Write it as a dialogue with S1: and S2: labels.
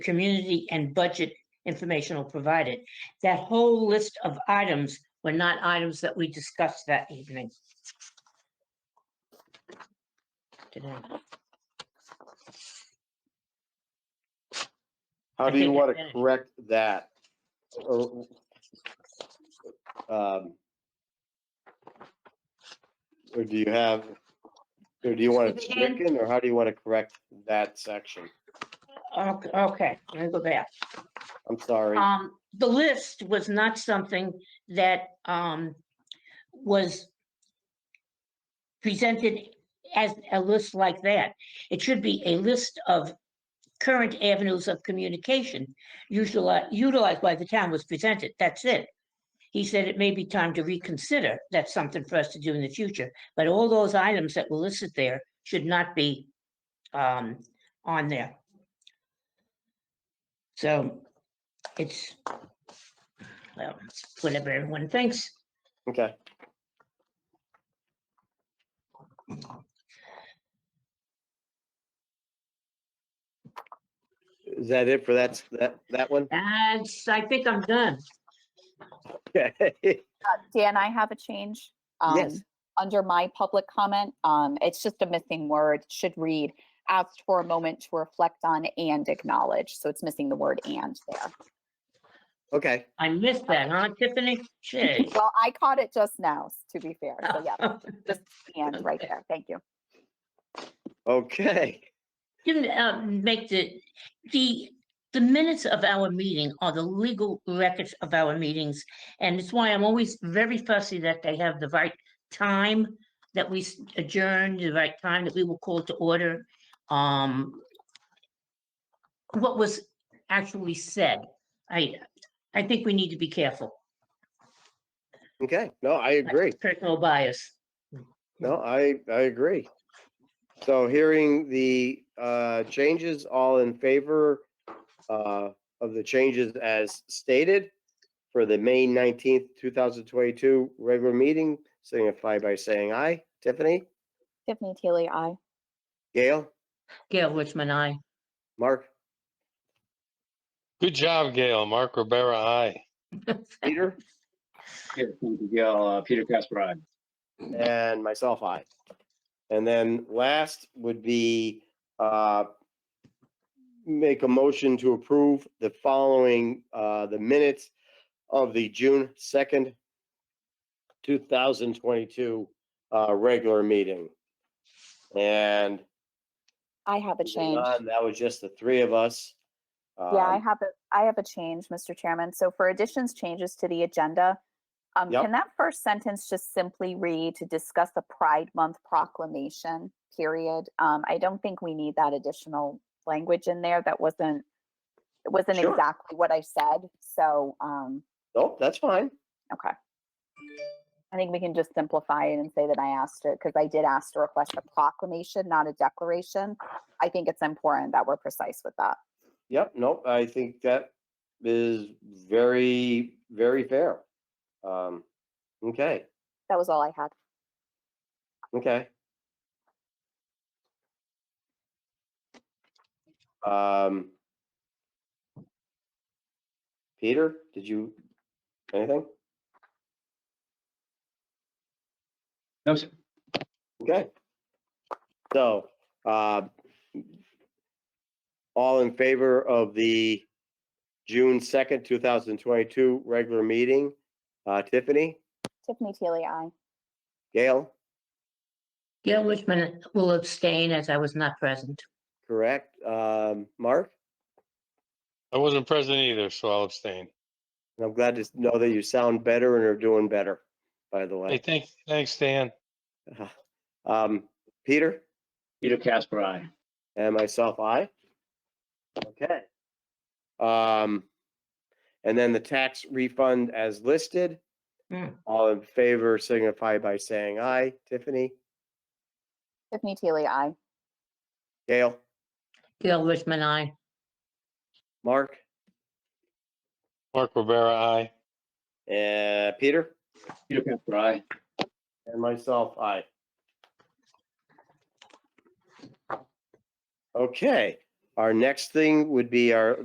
S1: community and budget informational provided. That whole list of items were not items that we discussed that evening. Today.
S2: How
S1: I
S2: do you
S1: think I
S2: want to
S1: finished.
S2: correct that? Or- um, Or do you have, or do you want it
S1: Suzanne?
S2: stricken, or how do you want to correct that section?
S1: Okay, okay, let me go back.
S2: I'm sorry.
S1: Um, the list was not something that, um, was presented as a list like that. It should be a list of current avenues of communication usually utilized by the town was presented. That's it. He said it may be time to reconsider. That's something for us to do in the future. But all those items that were listed there should not be, um, on there. So it's, well, whatever everyone thinks.
S2: Okay, is that it for that, that, that one?
S1: That's, I think I'm done.
S2: Okay.
S3: Dan, I have a change.
S2: Yes.
S3: um, Under my public comment, um, it's just a missing word, It should read, asked for a moment to reflect on and acknowledge. So it's missing the word and there.
S2: Okay,
S1: I missed that, huh, Tiffany? Gee.
S3: Well, I caught it just now, to be fair. So Oh, yeah, and right
S1: Okay.
S3: there. Thank you.
S2: okay.
S1: Didn't, uh, make the, the, the minutes of our meeting are the legal records of our meetings. And it's why I'm always very fussy that they have the right time that we s- adjourned, the right time that we were called to order. Um, what was actually said. I, I think we need to be careful.
S2: Okay, no, I agree.
S1: Personal bias.
S2: No, I, I agree. So hearing the uh changes, all in favor uh of the changes as stated for the May nineteenth, two thousand twenty-two regular meeting, signify by saying aye. Tiffany,
S3: Tiffany Teely, I.
S2: Gail,
S1: Gail Richmond, I.
S2: Mark,
S4: Good job, Gail. Mark Rivera, aye.
S2: Peter,
S5: Yeah, thank you, Gail. Uh, Peter Casper, aye.
S2: and myself, aye. And then last would be uh make a motion to approve the following, uh, the minutes of the June second, two thousand twenty-two, uh, regular meeting. And
S3: I have a
S2: moving
S3: change.
S2: on, that was just the three of us.
S3: Yeah, I
S2: Um,
S3: have a, I have a change, Mr. Chairman. So for additions, changes to the agenda, um,
S2: Yep.
S3: can that first sentence just simply read to discuss the Pride Month proclamation, period? Um, I don't think we need that additional language in there. That wasn't, it wasn't
S2: Sure.
S3: exactly what I said. So, um,
S2: Nope, that's fine.
S3: okay. I think we can just simplify it and say that I asked it because I did ask to request a proclamation, not a declaration. I think it's important that we're precise with that.
S2: Yep, nope, I think that is very, very fair. Um, okay,
S3: That was all I had.
S2: okay. Um. Peter, did you, anything?
S5: No, sir.
S2: Okay. So, uh, all in favor of the June second, two thousand twenty-two regular meeting? Uh, Tiffany,
S3: Tiffany Teely, I.
S2: Gail,
S1: Gail Richmond will abstain as I was not present.
S2: correct? Um, Mark?
S4: I wasn't present either, so I'll abstain.
S2: And I'm glad to s- know that you sound better and are doing better, by the
S4: Hey,
S2: way.
S4: thank, thanks, Dan.
S2: Um, Peter
S5: Peter Casper, aye.
S2: and myself, I. Okay. Um, and then the tax refund as listed.
S1: Mm.
S2: All in favor signify by saying aye. Tiffany,
S3: Tiffany Teely, I.
S2: Gail,
S1: Gail Richmond, I.
S2: Mark,
S4: Mark Rivera, aye.
S2: and Uh, Peter,
S5: Peter Casper, aye.
S2: and myself, I. Okay, our next thing would be our